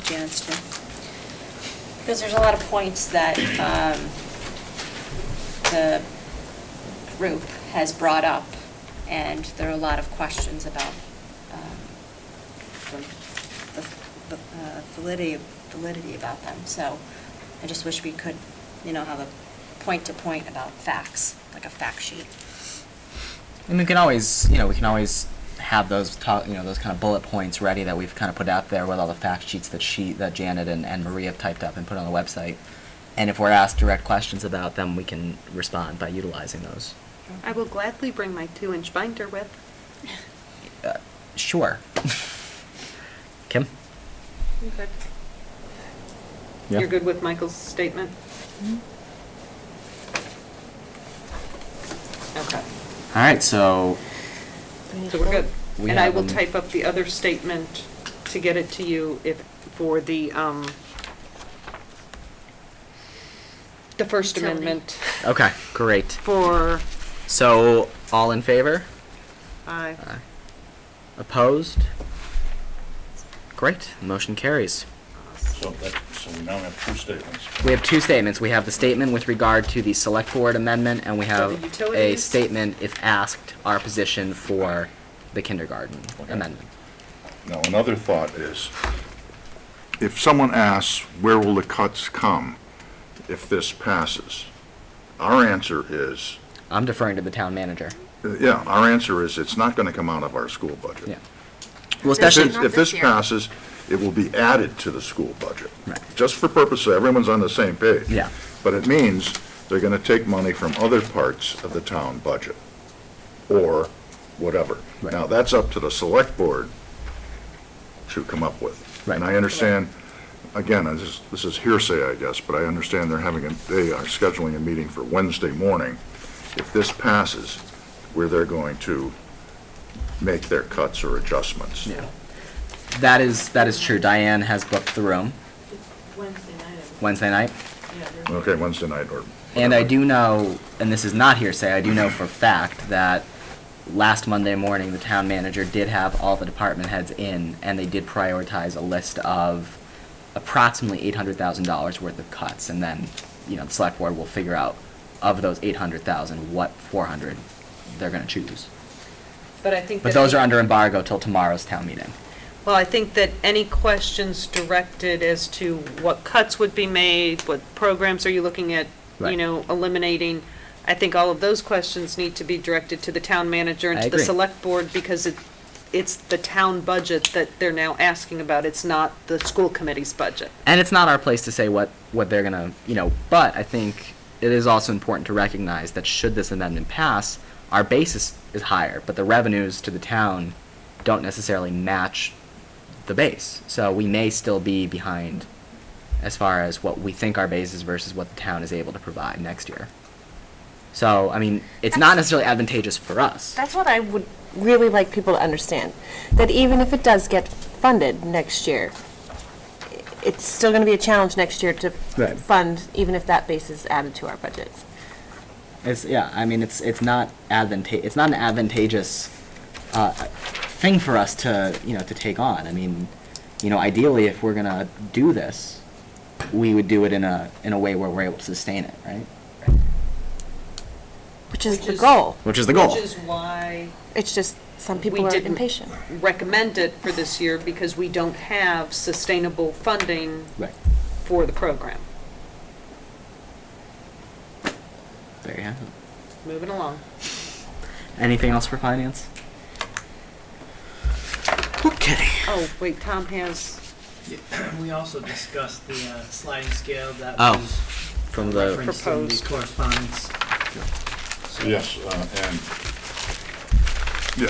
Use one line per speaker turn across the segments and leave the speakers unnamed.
Janice do. Because there's a lot of points that um, the group has brought up, and there are a lot of questions about um, the the, uh, validity, validity about them. So I just wish we could, you know, have a point-to-point about facts, like a fact sheet.
And we can always, you know, we can always have those, to- you know, those kind of bullet points ready that we've kind of put out there with all the fact sheets that she, that Janet and, and Maria have typed up and put on the website. And if we're asked direct questions about them, we can respond by utilizing those.
I will gladly bring my two-inch binder with.
Uh, sure. Kim?
You're good with Michael's statement? Okay,
All right, so
so we're good.
We
And I
have
will
them-
type up the other statement to get it to you if, for the, um, the First
Utility.
Amendment
okay, great.
for,
So all in favor?
I,
Aye. Opposed? Great. Motion carries.
So that, so we now have two statements.
We have two statements. We have the statement with regard to the select board amendment, and we
For the
have a
utilities?
statement, if asked, our position for the kindergarten amendment.
Now, another thought is, if someone asks, where will the cuts come if this passes? Our answer is,
I'm deferring to the town manager.
uh, yeah, our answer is, it's not going to come out of our school budget.
Yeah. Well,
If
especially,
this- If this passes, it will be added to the school budget.
Right.
Just for purpose, so everyone's on the same page.
Yeah.
But it means they're going to take money from other parts of the town budget, or whatever.
Right.
Now, that's up to the select board to come up with. And
Right.
I understand, again, this is, this is hearsay, I guess, but I understand they're having, a they are scheduling a meeting for Wednesday morning, if this passes, where they're going to make their cuts or adjustments.
Yeah. that is, that is true. Diane has booked the room
Wednesday night, I think.
Wednesday night.
yeah, there's
Okay, Wednesday night or.
And I
whatever.
do know, and this is not hearsay, I do know for a fact that last Monday morning, the town manager did have all the department heads in, and they did prioritize a list of approximately eight hundred thousand dollars worth of cuts, and then, you know, the select board will figure out of those eight hundred thousand, what four hundred they're gonna choose.
but I think that.
But those are under embargo till tomorrow's town meeting.
Well, I think that any questions directed as to what cuts would be made, what programs are you looking at, you
Right.
know, eliminating, I think all of those questions need to be directed to the town manager and
I
to the
agree.
select board, because it, it's the town budget that they're now asking about, it's not the school committee's budget.
and it's not our place to say what, what they're gonna, you know, but I think it is also important to recognize that should this amendment pass, our basis is higher, but the revenues to the town don't necessarily match the base. So we may still be behind as far as what we think our base is versus what the town is able to provide next year. So, I mean, it's not necessarily advantageous for us.
That's what I would really like people to understand, that even if it does get funded next year, i- it's still going to be a challenge next year to
Right.
fund, even if that base is added to our budget.
It's yeah. I mean, it's it's not advanta- It's not an advantageous uh, thing for us to you know to take on. I mean, you know, ideally, if we're gonna do this, we would do it in a in a way where we're able to sustain it, right?
Which is
Which
the
is-
goal.
Which is the goal.
Which is why
It's just some
We
people are
didn't-
impatient.
recommend it for this year, because we don't have sustainable funding
right.
for the program.
There you have it.
Moving along.
Anything else for finance? Okay.
Oh, wait, Tom has
We also discussed the uh, sliding scale that
Oh,
was
From the
referenced in the
Proposed.
correspondence. So-
Yes, uh,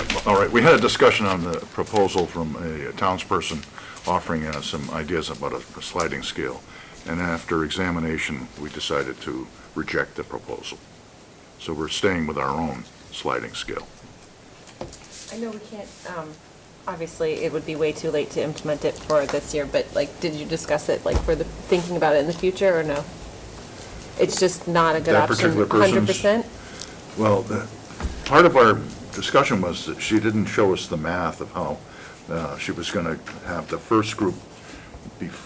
and, yeah, all right, we had a discussion on the proposal from a townsperson offering us some ideas about a sliding scale, and after examination, we decided to reject the proposal. So we're staying with our own sliding scale.
I know we can't, um, obviously, it would be way too late to implement it for this year, but like, did you discuss it, like, for the, thinking about it in the future, or no? It's just not a good
That
option,
particular person's-
100%?
Well, the, part of our discussion was that she didn't show us the math of how, uh, she was gonna have the first group